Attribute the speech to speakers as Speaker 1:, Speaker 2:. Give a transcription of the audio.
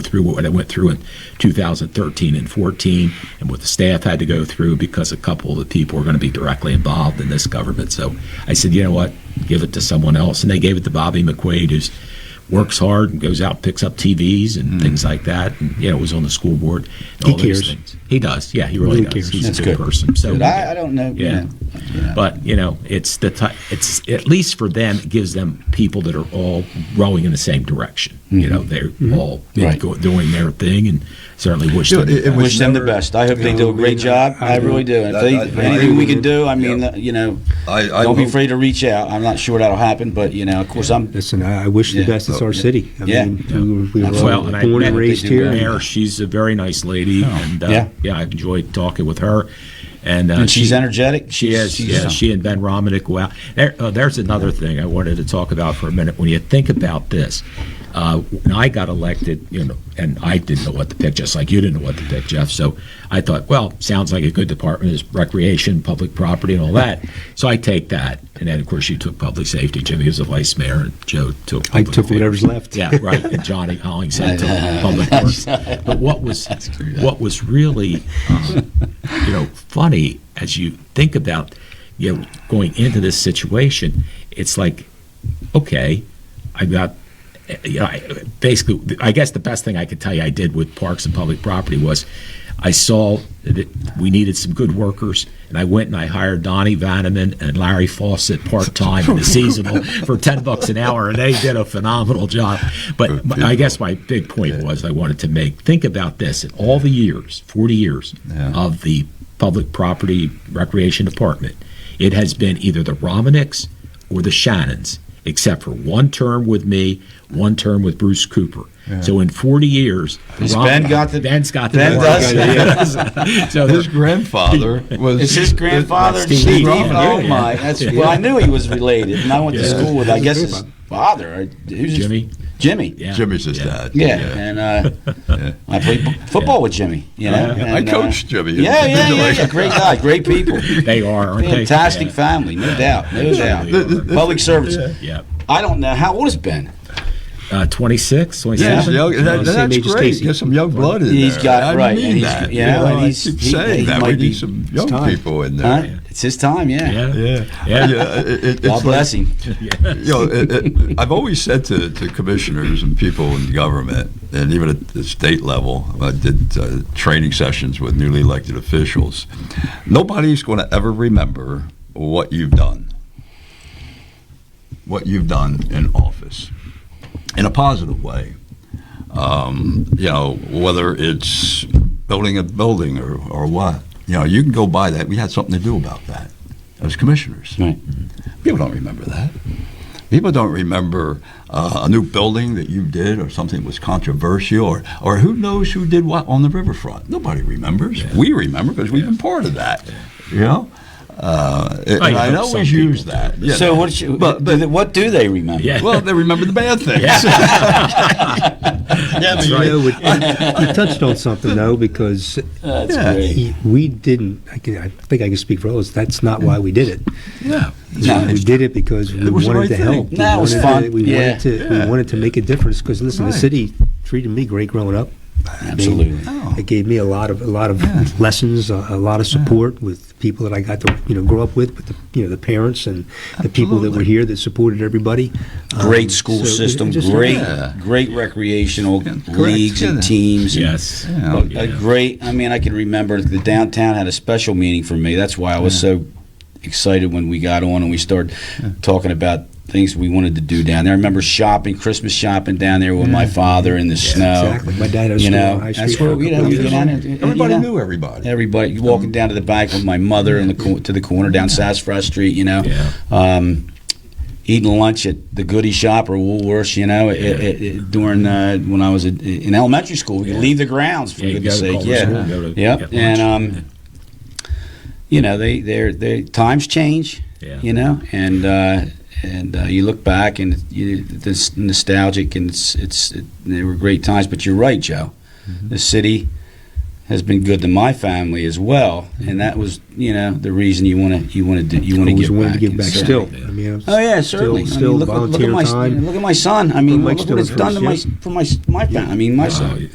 Speaker 1: through what I went through in 2013 and 14, and what the staff had to go through because a couple of the people were going to be directly involved in this government. So I said, you know what, give it to someone else, and they gave it to Bobby McQuaid, who's works hard and goes out and picks up TVs and things like that. And yeah, was on the school board. and
Speaker 2: Mm-hmm. He
Speaker 1: all those
Speaker 2: cares.
Speaker 1: things. He does. Yeah, he really,
Speaker 2: Really
Speaker 1: does.
Speaker 2: cares.
Speaker 1: He's
Speaker 2: That's
Speaker 1: a good,
Speaker 2: good.
Speaker 1: person. So
Speaker 3: I, I don't know. you
Speaker 1: Yeah.
Speaker 3: know, you know.
Speaker 1: but you know, it's the type. It's at least for them, it gives them people that are all rowing in the same direction. You know, they're all
Speaker 3: Right.
Speaker 1: go, doing their thing, and certainly wish
Speaker 4: You know,
Speaker 1: them. the
Speaker 4: it- it
Speaker 1: best.
Speaker 4: was
Speaker 3: Wish them the
Speaker 4: never-
Speaker 3: best. I hope they
Speaker 4: Yeah.
Speaker 3: do a great job. I really do. And if they,
Speaker 4: I- I- I
Speaker 3: anything we
Speaker 4: agree.
Speaker 3: can do, I mean,
Speaker 4: Yeah.
Speaker 3: uh, you know,
Speaker 4: I, I
Speaker 3: don't be
Speaker 4: will-
Speaker 3: afraid to reach out. I'm not sure that'll happen, but you know, of course, I'm.
Speaker 2: Listen, I I wish the
Speaker 3: Yeah.
Speaker 2: best. It's our city. I
Speaker 3: Yeah.
Speaker 2: mean, we were- we were all
Speaker 1: well, and I
Speaker 2: born
Speaker 1: met
Speaker 2: and raised
Speaker 1: the
Speaker 2: here.
Speaker 1: Mayor, she's a very nice lady, and uh,
Speaker 3: Yeah.
Speaker 1: yeah. I enjoyed talking with her. And, uh,
Speaker 3: And she's
Speaker 1: she-
Speaker 3: energetic.
Speaker 1: She is.
Speaker 3: She's-
Speaker 1: yeah, she and Ben Romanek. Wow. There, uh, there's another thing I wanted to talk about for a minute. When you think about this, uh, when I got elected, you know, and I didn't know what to pick, just like you didn't know what to pick, Jeff. So I thought, well, sounds like a good department is recreation, public property, and all that. So I take that. And then, of course, you took public safety. Jimmy was the vice mayor, and Joe took.
Speaker 2: I
Speaker 1: Public
Speaker 2: took whatever's left.
Speaker 1: yeah, right. And Johnny Hollingshead took public works. But what was what was really um, you know funny as you think about you know going into this situation, it's like okay, I got. You know, I, basically, I guess the best thing I could tell you I did with parks and public property was I saw that we needed some good workers, and I went and I hired Donnie Vanneman and Larry Fawcett part time and seasonal for ten bucks an hour, and they did a phenomenal job. But my- I guess my big point was I wanted to make think about this in all the years, forty years of the public property recreation department, it has been either the Romanicks or the Shannons, except for one term with me, one term with Bruce Cooper. So in 40 years, the
Speaker 3: Has Ben got the-
Speaker 1: Ben's got the
Speaker 3: Ben
Speaker 1: Romanicks.
Speaker 3: does.
Speaker 1: so
Speaker 4: His
Speaker 1: they're-
Speaker 4: grandfather was.
Speaker 3: It's his grandfather,
Speaker 1: Steve
Speaker 3: Steve.
Speaker 1: Roman,
Speaker 3: Oh
Speaker 1: yeah.
Speaker 3: my! That's well, I knew he was related, and I went to
Speaker 1: Yeah.
Speaker 3: school with, I guess,
Speaker 2: That's
Speaker 3: his father. or- Who's his-
Speaker 1: Jimmy.
Speaker 3: Jimmy.
Speaker 1: Yeah.
Speaker 4: Jimmy's his dad.
Speaker 3: Yeah, and uh, I played b- football with Jimmy. You know,
Speaker 4: I
Speaker 3: and, uh,
Speaker 4: coached Jimmy.
Speaker 3: Yeah, yeah, yeah, yeah. Great guy, great people,
Speaker 1: They are, aren't they?
Speaker 3: fantastic
Speaker 1: Yeah.
Speaker 3: family, no doubt, no
Speaker 1: Th-
Speaker 3: doubt.
Speaker 1: th-
Speaker 3: Public service.
Speaker 1: Yeah.
Speaker 3: I don't know how old is Ben.
Speaker 1: Uh, 26, 27?
Speaker 4: He's young, that-
Speaker 2: Same
Speaker 4: that's
Speaker 2: age as
Speaker 4: great.
Speaker 2: Casey.
Speaker 4: Get some young blood in
Speaker 3: He's
Speaker 4: there.
Speaker 3: got-
Speaker 4: I
Speaker 3: right,
Speaker 4: mean
Speaker 3: and he's-
Speaker 4: that.
Speaker 3: yeah,
Speaker 4: you know,
Speaker 3: and
Speaker 4: I
Speaker 3: he's-
Speaker 4: keep
Speaker 3: he-
Speaker 4: saying
Speaker 3: he
Speaker 4: that we
Speaker 3: might be-
Speaker 4: need some young
Speaker 2: time.
Speaker 4: people in
Speaker 3: Huh?
Speaker 4: there.
Speaker 3: It's his time. Yeah.
Speaker 1: Yeah.
Speaker 4: Yeah,
Speaker 1: Yeah.
Speaker 4: It, it, it's
Speaker 3: God
Speaker 4: like-
Speaker 3: bless him.
Speaker 4: you know, it, it, I've always said to, to commissioners and people in government, and even at the state level, I did uh, training sessions with newly elected officials. Nobody's going to ever remember what you've done, what you've done in office, in a positive way. Um, you know, whether it's building a building or, or what. You know, you can go by that. We had something to do about that as commissioners.
Speaker 3: Right.
Speaker 4: People don't remember that. People don't remember uh, a new building that you did or something that was controversial or, or who knows who did what on the riverfront. Nobody remembers. We remember because we've been part of that. You know? Uh, and
Speaker 1: I
Speaker 4: I,
Speaker 1: hope some
Speaker 4: always
Speaker 1: people
Speaker 4: use that. you
Speaker 3: So
Speaker 4: know.
Speaker 3: what? Should,
Speaker 4: But- but-
Speaker 3: what do they remember?
Speaker 1: Yeah.
Speaker 4: Well, they remember the bad things. yeah, but
Speaker 2: You
Speaker 4: you
Speaker 2: know,
Speaker 4: know,
Speaker 2: it- you touched on something though, because
Speaker 3: That's
Speaker 4: Yeah.
Speaker 3: great.
Speaker 2: y- we didn't. I, can, I think I can speak for all of us. That's not why we did it.
Speaker 4: yeah.
Speaker 3: No.
Speaker 2: we did it because we
Speaker 4: It was the
Speaker 2: wanted
Speaker 4: right
Speaker 2: to
Speaker 4: thing.
Speaker 2: help. We
Speaker 3: No, it was
Speaker 2: wanted to-
Speaker 3: fun.
Speaker 2: we
Speaker 3: Yeah.
Speaker 2: wanted to.
Speaker 4: Yeah.
Speaker 2: We wanted to make a difference because listen, the
Speaker 4: Right.
Speaker 2: city treated me great growing up. I mean,
Speaker 3: Absolutely.
Speaker 4: Oh.
Speaker 2: It gave me a lot of a lot of
Speaker 4: Yeah.
Speaker 2: lessons, a, a lot of support with people that I got to you know grow up with, with the, you know the parents and the people that were
Speaker 4: Absolutely.
Speaker 2: here that supported everybody. Um,
Speaker 3: Great school
Speaker 2: so it-
Speaker 3: system.
Speaker 2: it just-
Speaker 3: great,
Speaker 4: Yeah.
Speaker 3: great recreational
Speaker 4: Yeah, correct,
Speaker 3: leagues and
Speaker 4: yeah.
Speaker 3: teams. and-
Speaker 1: Yes.
Speaker 4: Yeah.
Speaker 3: A,
Speaker 1: Yeah.
Speaker 3: a great. I mean, I can remember the downtown had a special meaning for me. That's why I was so excited when we got on and we started talking about things we wanted to do down there. I remember shopping, Christmas shopping down there with my father in the snow.
Speaker 2: Exactly. My dad has
Speaker 3: You
Speaker 2: school
Speaker 3: know,
Speaker 2: on High
Speaker 3: that's
Speaker 2: Street
Speaker 3: where
Speaker 2: for a
Speaker 3: we- you know,
Speaker 2: couple
Speaker 3: we
Speaker 2: years.
Speaker 3: get on it. you
Speaker 4: Everybody
Speaker 3: know.
Speaker 4: knew everybody.
Speaker 3: Everybody walking down to the bank with my mother in the cor- to the corner down Sassafras Street, you know,
Speaker 1: Yeah.
Speaker 3: um, eating lunch at the Goody Shop or Woolworths, you know, it, it, it, during uh, when I was in- in elementary school, you leave the grounds for
Speaker 1: Yeah, you
Speaker 3: goodness
Speaker 1: gotta
Speaker 3: sake,
Speaker 1: call the
Speaker 3: yeah,
Speaker 1: school and go to
Speaker 3: yep,
Speaker 1: get
Speaker 3: and
Speaker 1: lunch.
Speaker 3: um, you know they they they times change,
Speaker 1: Yeah.
Speaker 3: you know, and. Uh, and uh, you look back, and you, this nostalgic, and it's it's it, they were great times. But you're right, Joe. The city has been good to my family as well, and that was you know the reason you want to you want to you want to
Speaker 2: Always
Speaker 3: give
Speaker 2: wanted
Speaker 3: back.
Speaker 2: to give
Speaker 3: and
Speaker 2: back.
Speaker 3: certainly-
Speaker 2: Still, I mean, I'm
Speaker 3: Oh yeah,
Speaker 2: still-
Speaker 3: certainly. I
Speaker 2: Still
Speaker 3: mean, look, look- look
Speaker 2: volunteer
Speaker 3: at my
Speaker 2: time.
Speaker 3: look at my son. I mean,
Speaker 2: Mike
Speaker 3: look what it's
Speaker 2: Stiller
Speaker 3: done to my
Speaker 2: first,
Speaker 3: for my my family. I mean, my
Speaker 1: Wow.
Speaker 3: son.